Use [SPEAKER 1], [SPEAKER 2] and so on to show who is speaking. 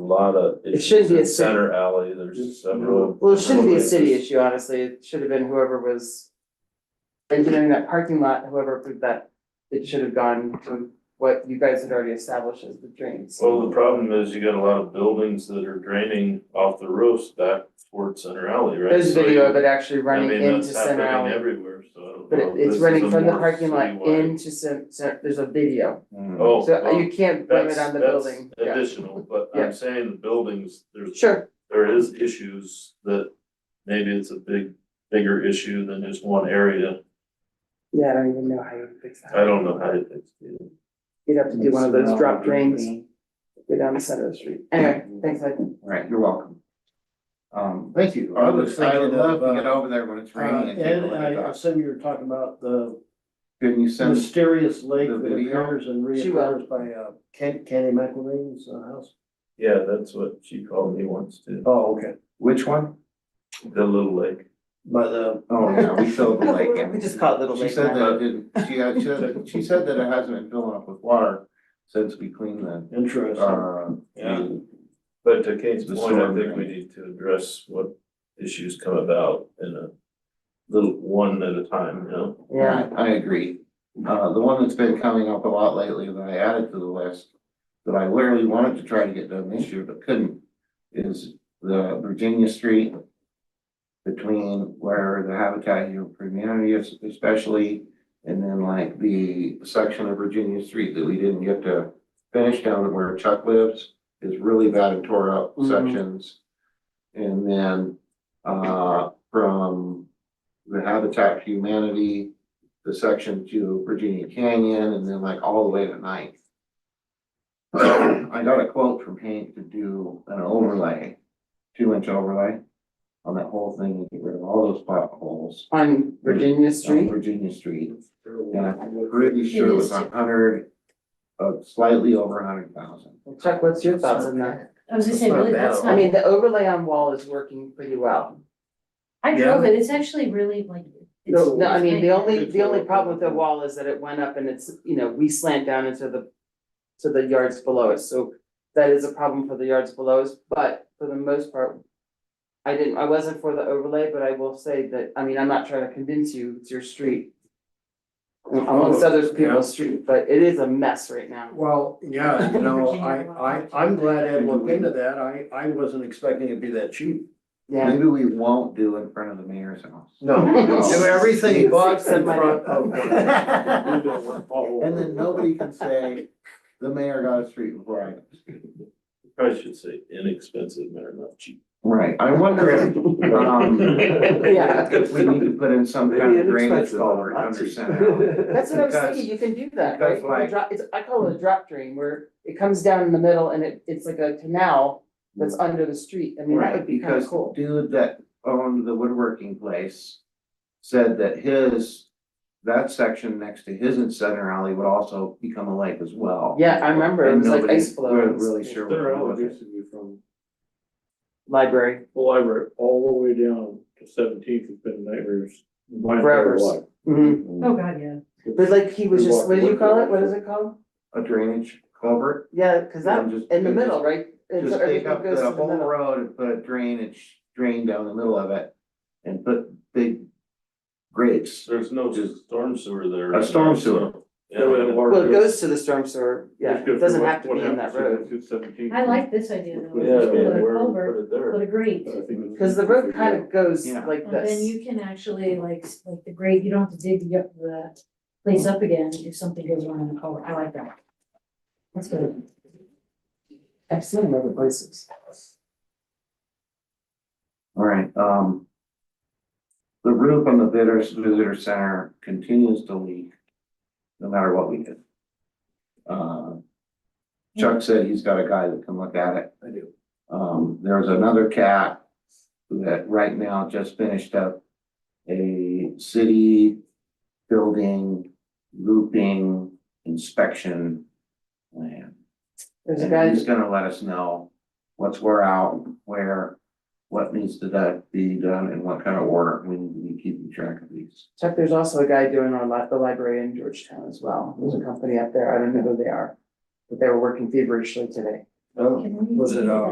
[SPEAKER 1] lot of.
[SPEAKER 2] It should be
[SPEAKER 1] issues in
[SPEAKER 2] a city.
[SPEAKER 1] Center alley, there's several.
[SPEAKER 2] Well, it shouldn't be a city issue, honestly, it should have been whoever was engineering that parking lot, whoever approved that, it should have gone to what you guys had already established as the drains.
[SPEAKER 1] Well, the problem is you got a lot of buildings that are draining off the roofs back towards Center Alley, right?
[SPEAKER 2] There's
[SPEAKER 1] So
[SPEAKER 2] video of
[SPEAKER 1] you-
[SPEAKER 2] it actually
[SPEAKER 1] I
[SPEAKER 2] running
[SPEAKER 1] mean,
[SPEAKER 2] into
[SPEAKER 1] that's
[SPEAKER 2] Center
[SPEAKER 1] happening
[SPEAKER 2] Alley,
[SPEAKER 1] Everywhere, so. I don't
[SPEAKER 2] but
[SPEAKER 1] know.
[SPEAKER 2] it-
[SPEAKER 1] This
[SPEAKER 2] it's
[SPEAKER 1] is
[SPEAKER 2] running
[SPEAKER 1] a
[SPEAKER 2] from the
[SPEAKER 1] more
[SPEAKER 2] parking lot
[SPEAKER 1] citywide-
[SPEAKER 2] into Cen- Cen- there's a video,
[SPEAKER 1] Oh,
[SPEAKER 2] so uh,
[SPEAKER 1] well,
[SPEAKER 2] you can't blame it
[SPEAKER 1] That's,
[SPEAKER 2] on the
[SPEAKER 1] that's
[SPEAKER 2] building, yeah.
[SPEAKER 1] additional, but
[SPEAKER 2] Yeah.
[SPEAKER 1] I'm saying the buildings, there's,
[SPEAKER 2] Sure,
[SPEAKER 1] there is issues that maybe it's a big, bigger issue than just one area.
[SPEAKER 2] yeah, I don't even know how you fix that.
[SPEAKER 1] I don't know how to fix it.
[SPEAKER 2] You'd have to do one of those drop drains, go down the center of the street, anyway, thanks, I.
[SPEAKER 3] Right, you're welcome. Um,
[SPEAKER 4] Thank you.
[SPEAKER 3] I was
[SPEAKER 4] would
[SPEAKER 3] thinking
[SPEAKER 4] love
[SPEAKER 3] of,
[SPEAKER 4] to
[SPEAKER 3] uh,
[SPEAKER 4] get over there when it's
[SPEAKER 3] uh,
[SPEAKER 4] raining and take
[SPEAKER 3] Ed,
[SPEAKER 4] a look
[SPEAKER 3] I-
[SPEAKER 4] at
[SPEAKER 3] I
[SPEAKER 4] that.
[SPEAKER 5] Assume you were talking about the
[SPEAKER 4] Couldn't you send us
[SPEAKER 5] mysterious lake
[SPEAKER 4] the
[SPEAKER 5] that
[SPEAKER 4] video?
[SPEAKER 5] appears and
[SPEAKER 2] She will.
[SPEAKER 5] reappears by uh Ken, Kenny McElveen's uh, house.
[SPEAKER 1] Yeah, that's what she called me once too,
[SPEAKER 5] Oh, okay,
[SPEAKER 4] which one?
[SPEAKER 1] the little lake.
[SPEAKER 5] by the,
[SPEAKER 4] Oh, yeah, we sold the lake.
[SPEAKER 2] We just call it Little
[SPEAKER 4] She
[SPEAKER 2] Lake
[SPEAKER 4] said
[SPEAKER 2] now.
[SPEAKER 4] that it didn't, she had, she said, she said that it hasn't been filling up with water since we cleaned the,
[SPEAKER 5] interesting,
[SPEAKER 4] uh.
[SPEAKER 1] Yeah.
[SPEAKER 4] the-
[SPEAKER 1] But to Kate's
[SPEAKER 4] The
[SPEAKER 1] point, I
[SPEAKER 4] storm
[SPEAKER 1] think we
[SPEAKER 4] drain.
[SPEAKER 1] need to address what issues come about in a little, one at a time, you know?
[SPEAKER 2] Yeah,
[SPEAKER 4] I agree. Uh, the one that's been coming up a lot lately that I added to the list, that I literally wanted to try to get done this year but couldn't, is the Virginia Street between where the Habitat for Humanity is especially, and then like the section of Virginia Street that we didn't get to finish down where Chuck lives is really bad and tore up
[SPEAKER 2] Mhm.
[SPEAKER 4] sections. And then, uh, from the Habitat for Humanity the section to Virginia Canyon and then like all the way to Ninth. I got a quote from Hank to do an overlay, two inch overlay on that whole thing, and get rid of all those potholes.
[SPEAKER 2] on Virginia
[SPEAKER 4] on
[SPEAKER 2] Street,
[SPEAKER 4] Virginia Street, and I'm pretty sure it was a hundred, uh, slightly over a hundred thousand.
[SPEAKER 2] Chuck, what's your thoughts on that?
[SPEAKER 6] I was gonna say, really, that's
[SPEAKER 2] I
[SPEAKER 6] not,
[SPEAKER 2] mean, the overlay on wall is working pretty well.
[SPEAKER 6] I drove it, it's actually really like. it's-
[SPEAKER 2] No, I mean, the only,
[SPEAKER 4] it's
[SPEAKER 2] the only
[SPEAKER 4] all-
[SPEAKER 2] problem with the wall is that it went up and it's, you know, we slant down into the, to the yards below us, so that is a problem for the yards below us, but for the most part, I didn't, I wasn't for the overlay, but I will say that, I mean, I'm not trying to convince you, it's your street. Amongst other people's street, but it is a mess right now.
[SPEAKER 5] well, yeah, you know, I I I'm glad Ed looked into that, I I wasn't expecting it'd be that cheap.
[SPEAKER 2] Yeah,
[SPEAKER 4] Maybe we won't do in front of the mayor's house.
[SPEAKER 5] No, do everything but in front of.
[SPEAKER 4] And then nobody can say, the mayor got a street before I.
[SPEAKER 1] Probably should say inexpensive, but not cheap.
[SPEAKER 4] Right, I wonder if, um,
[SPEAKER 2] yeah,
[SPEAKER 4] if we need to put in some kind of drainage
[SPEAKER 3] inexpensive,
[SPEAKER 4] culvert
[SPEAKER 3] not
[SPEAKER 4] under
[SPEAKER 3] cheap.
[SPEAKER 4] center.
[SPEAKER 2] That's what I was
[SPEAKER 4] Because-
[SPEAKER 2] thinking, you can do that, right?
[SPEAKER 4] because, like-
[SPEAKER 2] A drop- it's- I call it a drop drain, where it comes down in the middle and it, it's like a canal that's under the street, I mean, that
[SPEAKER 4] Right,
[SPEAKER 2] would be kind
[SPEAKER 4] because
[SPEAKER 2] of
[SPEAKER 4] the
[SPEAKER 2] cool.
[SPEAKER 4] dude that owned the woodworking place said that his, that section next to his in center alley would also become a lake as well.
[SPEAKER 2] Yeah, I remember, it
[SPEAKER 4] Oh, And
[SPEAKER 2] was like
[SPEAKER 4] nobody-
[SPEAKER 2] ice flow.
[SPEAKER 4] we weren't
[SPEAKER 2] and-
[SPEAKER 4] really sure. what
[SPEAKER 7] They're
[SPEAKER 4] to do with it.
[SPEAKER 7] you from
[SPEAKER 2] Library,
[SPEAKER 7] the library all the way down to seventeenth, it's been nightmares. my entire
[SPEAKER 2] Forever.
[SPEAKER 7] life.
[SPEAKER 2] Mhm.
[SPEAKER 6] Oh, God, yeah.
[SPEAKER 2] but like he was
[SPEAKER 7] We
[SPEAKER 2] just,
[SPEAKER 7] walked
[SPEAKER 2] what do you
[SPEAKER 7] away
[SPEAKER 2] call
[SPEAKER 7] from
[SPEAKER 2] it, what is it called?
[SPEAKER 4] A drainage culvert,
[SPEAKER 2] Yeah, cause that,
[SPEAKER 4] And just-
[SPEAKER 2] in the
[SPEAKER 4] and just-
[SPEAKER 2] middle, right? It's
[SPEAKER 4] just
[SPEAKER 2] everything
[SPEAKER 4] take up
[SPEAKER 2] goes to
[SPEAKER 4] the
[SPEAKER 2] the
[SPEAKER 4] whole
[SPEAKER 2] middle.
[SPEAKER 4] road and put a drainage drain down the middle of it and put big grates.
[SPEAKER 1] There's no storm sewer there.
[SPEAKER 4] A storm sewer.
[SPEAKER 1] Yeah, we had a water-
[SPEAKER 2] Well, it goes to the storm sewer, yeah,
[SPEAKER 7] Just go
[SPEAKER 2] it doesn't
[SPEAKER 7] through
[SPEAKER 2] have to
[SPEAKER 7] what
[SPEAKER 2] be in that
[SPEAKER 7] happens
[SPEAKER 2] road.
[SPEAKER 7] to 17th.
[SPEAKER 6] I like this idea though.
[SPEAKER 1] Yeah,
[SPEAKER 6] Just put
[SPEAKER 1] yeah,
[SPEAKER 6] a
[SPEAKER 1] where we
[SPEAKER 6] culvert,
[SPEAKER 1] put it there.
[SPEAKER 6] put a grate,
[SPEAKER 7] I think
[SPEAKER 2] Cause the road kind of goes
[SPEAKER 4] Yeah.
[SPEAKER 2] like
[SPEAKER 6] and then
[SPEAKER 2] this,
[SPEAKER 6] you can actually like, s- like the grate, you don't have to dig the, the place up again if something goes wrong in the culvert, I like that. That's good.
[SPEAKER 2] I've seen it in other places.
[SPEAKER 4] All right, um. The roof on the visitors, visitor center continues to leak, no matter what we do. Uh, Chuck said he's got a guy that can look at it.
[SPEAKER 5] I do.
[SPEAKER 4] Um, there's another cat that right now just finished up a city building looping inspection plan.
[SPEAKER 2] There's a guy,
[SPEAKER 4] And he's gonna let us know what's where out, where, what needs to that be done and what kind of order we need to be keeping track of these.
[SPEAKER 2] Chuck, there's also a guy doing our li- the library in Georgetown as well, there's a company up there, I don't know who they are. But they were working feverishly today.
[SPEAKER 5] Oh.
[SPEAKER 6] Can we-
[SPEAKER 5] Was it, uh,